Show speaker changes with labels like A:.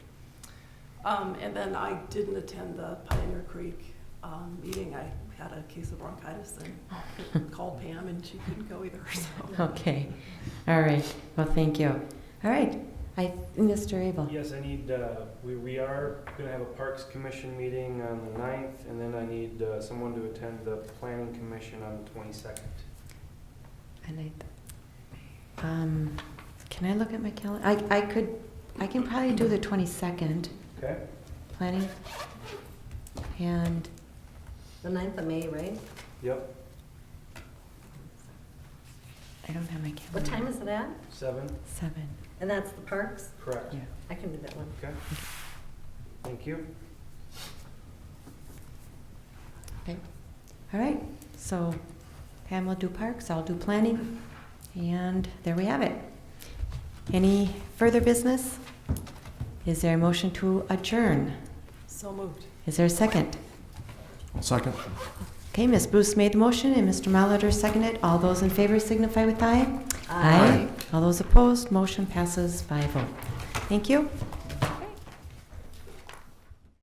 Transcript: A: Um, and then I didn't attend the Pioneer Creek, um, meeting. I had a case of bronchitis and called Pam and she couldn't go either, so.
B: Okay, all right, well, thank you. All right, I, Mr. Abel?
C: Yes, I need, uh, we, we are gonna have a Parks Commission meeting on the ninth, and then I need, uh, someone to attend the Planning Commission on the twenty-second.
B: And I, um, can I look at my calendar? I, I could, I can probably do the twenty-second,
C: Okay?
B: planning. And,
D: The ninth of May, right?
C: Yep,
B: I don't have my calendar.
D: What time is it at?
C: seven,
B: Seven,
D: And that's the parks?
C: correct.
B: yeah.
D: I can do that one.
C: Okay? Thank you.
B: All right, so Pam will do parks, I'll do planning, and there we have it. Any further business? Is there a motion to adjourn?
A: So moved.
B: Is there a second?
E: Second.
B: Okay, Ms. Bruce made the motion and Mr. Malater seconded. All those in favor signify with aye. All those opposed, motion passes 5-0. Thank you.